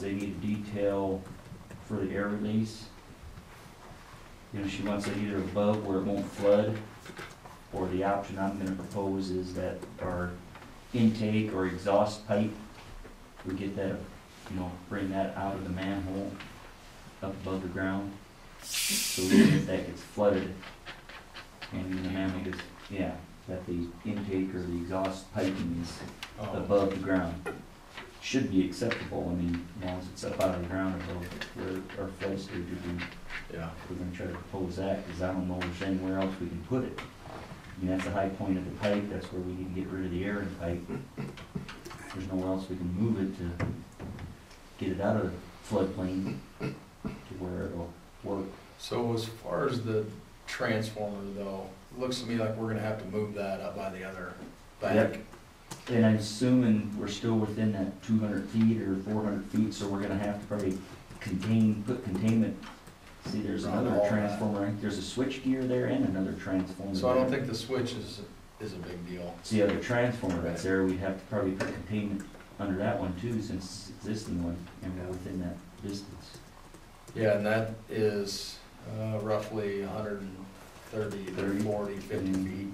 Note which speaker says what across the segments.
Speaker 1: They need a detail for the air release. You know, she wants it either above where it won't flood, or the option I'm gonna propose is that our intake or exhaust pipe, we get that, you know, bring that out of the manhole up above the ground. So even if that gets flooded, and the manhole gets, yeah, that the intake or the exhaust piping is
Speaker 2: Oh,
Speaker 1: above the ground should be acceptable, I mean, as long as it's up out of the ground above where our flood stage would be.
Speaker 2: Yeah.
Speaker 1: We're gonna try to propose that, cause I don't know if there's anywhere else we can put it. I mean, that's the high point of the pipe, that's where we need to get rid of the air in the pipe. There's nowhere else we can move it to get it out of the floodplain to where it'll work.
Speaker 2: So as far as the transformer though, looks to me like we're gonna have to move that up by the other bank.
Speaker 1: And I'm assuming we're still within that two hundred feet or four hundred feet, so we're gonna have to probably contain, put containment. See, there's
Speaker 2: Around
Speaker 1: another
Speaker 2: all that.
Speaker 1: transformer, there's a switch gear there and another transformer.
Speaker 2: So I don't
Speaker 1: there.
Speaker 2: think the switch is, is a big deal.
Speaker 1: It's the other transformer that's there, we'd have to probably put containment under that one too, since it's existing one, and we're within that distance.
Speaker 2: Yeah, and that is uh, roughly 130,
Speaker 1: Thirty. Mm-hmm.
Speaker 2: 40, 50 feet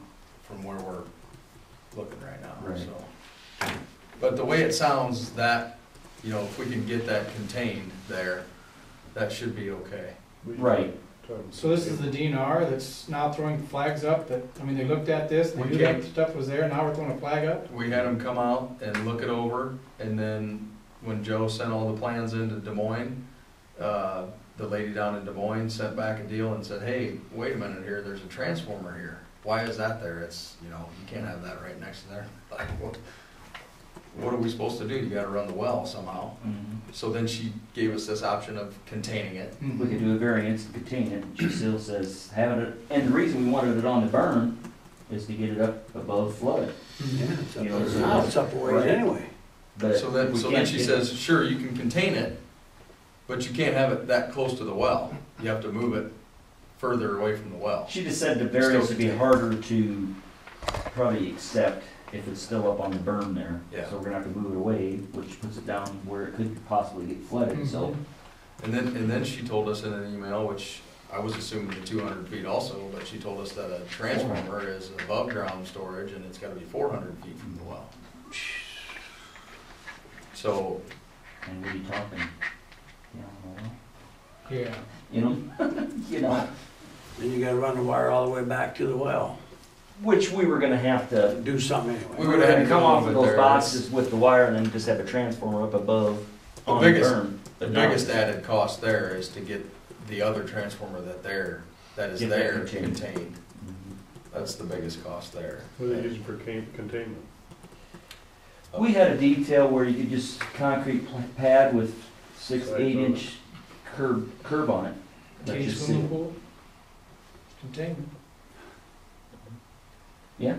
Speaker 2: from where we're looking right now,
Speaker 1: Right.
Speaker 2: so. But the way it sounds, that, you know, if we can get that contained there, that should be okay.
Speaker 1: Right,
Speaker 3: So this is the DNR that's now throwing flags up that, I mean, they looked at this, they
Speaker 2: We
Speaker 3: knew that
Speaker 2: can't-
Speaker 3: stuff was there, now we're throwing a flag up?
Speaker 2: We had them come out and look it over, and then when Joe sent all the plans into Des Moines, uh, the lady down in Des Moines sent back a deal and said, hey, wait a minute here, there's a transformer here. Why is that there? It's, you know, you can't have that right next to there. Like, what, what are we supposed to do? You gotta run the well somehow.
Speaker 1: mhm.
Speaker 2: So then she gave us this option of containing it.
Speaker 1: we could do a variance and contain it, she still says, having it, and the reason we wanted it on the burn is to get it up above flood,
Speaker 4: Hmm.
Speaker 3: Mhm.
Speaker 1: you know, so.
Speaker 5: Now it's up a ways
Speaker 1: Right.
Speaker 5: anyway.
Speaker 1: But
Speaker 2: So then,
Speaker 1: we
Speaker 2: so then
Speaker 1: can't
Speaker 2: she
Speaker 1: get-
Speaker 2: says, sure, you can contain it, but you can't have it that close to the well. You have to move it further away from the well.
Speaker 1: She just said the variance would be
Speaker 2: Still-
Speaker 1: harder to probably accept if it's still up on the berm there.
Speaker 2: Yeah.
Speaker 1: So we're gonna have to move it away, which puts it down where it could possibly get flooded, so.
Speaker 2: And then, and then she told us in an email, which I was assuming the two hundred feet also, but she told us that a transformer is above ground storage and it's gotta be four hundred feet from the well. So,
Speaker 1: And we'd be talking, you know,
Speaker 3: Yeah,
Speaker 1: you know, you know,
Speaker 5: Then you gotta run the wire all the way back to the well,
Speaker 1: which we were gonna have to.
Speaker 5: do something anyway.
Speaker 2: We would've had to
Speaker 1: Come off
Speaker 2: move
Speaker 1: of
Speaker 2: it
Speaker 1: those
Speaker 2: there.
Speaker 1: boxes with the wire and then just have a transformer up above
Speaker 2: The
Speaker 1: on the
Speaker 2: biggest-
Speaker 1: berm.
Speaker 2: the biggest added cost there is to get the other transformer that there, that is
Speaker 1: Get that
Speaker 2: there
Speaker 1: contained.
Speaker 2: contained.
Speaker 1: Mm-hmm.
Speaker 2: That's the biggest cost there.
Speaker 4: What are they using for can- containment?
Speaker 2: Uh,
Speaker 1: We had a detail where you could just concrete pla- pad with six,
Speaker 4: Sides
Speaker 1: eight
Speaker 4: on it.
Speaker 1: inch curb, curb on it. Let
Speaker 3: cage
Speaker 1: you see.
Speaker 3: swimming pool, containment.
Speaker 2: Yeah,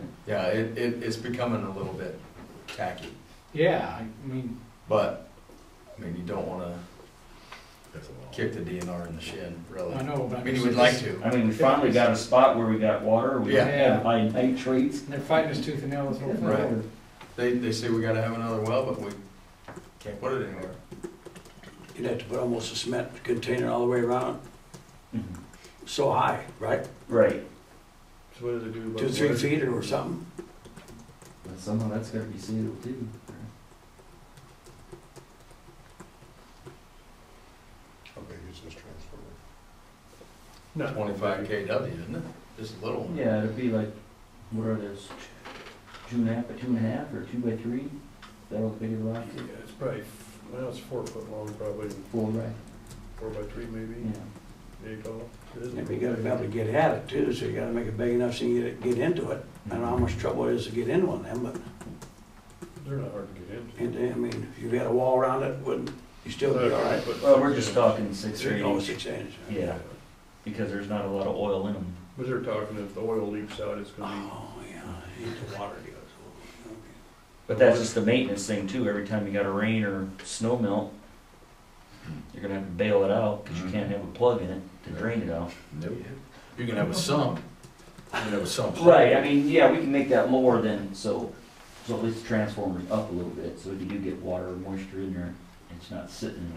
Speaker 2: it, it, it's becoming a little bit tacky,
Speaker 3: Yeah, I mean,
Speaker 2: but, I mean, you don't wanna kick the DNR in the shin, really.
Speaker 3: I know, but.
Speaker 2: I mean, you would like to.
Speaker 1: I mean, we finally got a spot where we got water, we
Speaker 2: Yeah.
Speaker 1: had high nitrates.
Speaker 3: They're fighting us tooth and nail this whole thing.
Speaker 2: Right. They, they say we gotta have another well, but we can't put it anywhere.
Speaker 5: You'd have to put almost a cement container all the way around,
Speaker 1: Mhm.
Speaker 5: so high, right?
Speaker 1: Right,
Speaker 4: So what do they do about?
Speaker 5: Two, three
Speaker 4: water?
Speaker 5: feet or something.
Speaker 1: but somehow that's gotta be sealed too.
Speaker 6: How big is this transformer?
Speaker 4: No.
Speaker 2: Twenty-five KW, isn't it? Just a little one.
Speaker 1: Yeah, it'd be like, what are those, two and a half, by two and a half, or two by three? That'll be the last
Speaker 4: Yeah, it's probably, well, it's four foot long, probably,
Speaker 1: four, right?
Speaker 4: four by three maybe,
Speaker 1: Yeah.
Speaker 4: eight tall. It is
Speaker 5: And Mm. you gotta be able to get at it too, so you gotta make it big enough so you get, get into it. I don't know how much trouble it is to get into one of them, but,
Speaker 4: They're not hard to get into.
Speaker 5: and, I mean, if you had a wall around it, wouldn't, you still be all right.
Speaker 1: Well, we're just talking six or
Speaker 5: Three,
Speaker 1: eight
Speaker 5: oh,
Speaker 1: inch,
Speaker 5: six inches.
Speaker 1: yeah, because there's not a lot of oil in them.
Speaker 4: But they're talking if the oil leaks out, it's gonna
Speaker 5: Oh, yeah, into water goes.
Speaker 1: But that's just the maintenance thing too, every time you got a rain or snow melt, you're gonna have to bail it out, cause you can't have a plug in it to drain it out.
Speaker 2: You can have a sump, you can have a sump.
Speaker 1: Right, I mean, yeah, we can make that lower then, so, so at least the transformer's up a little bit, so if you do get water or moisture in there, it's not sitting in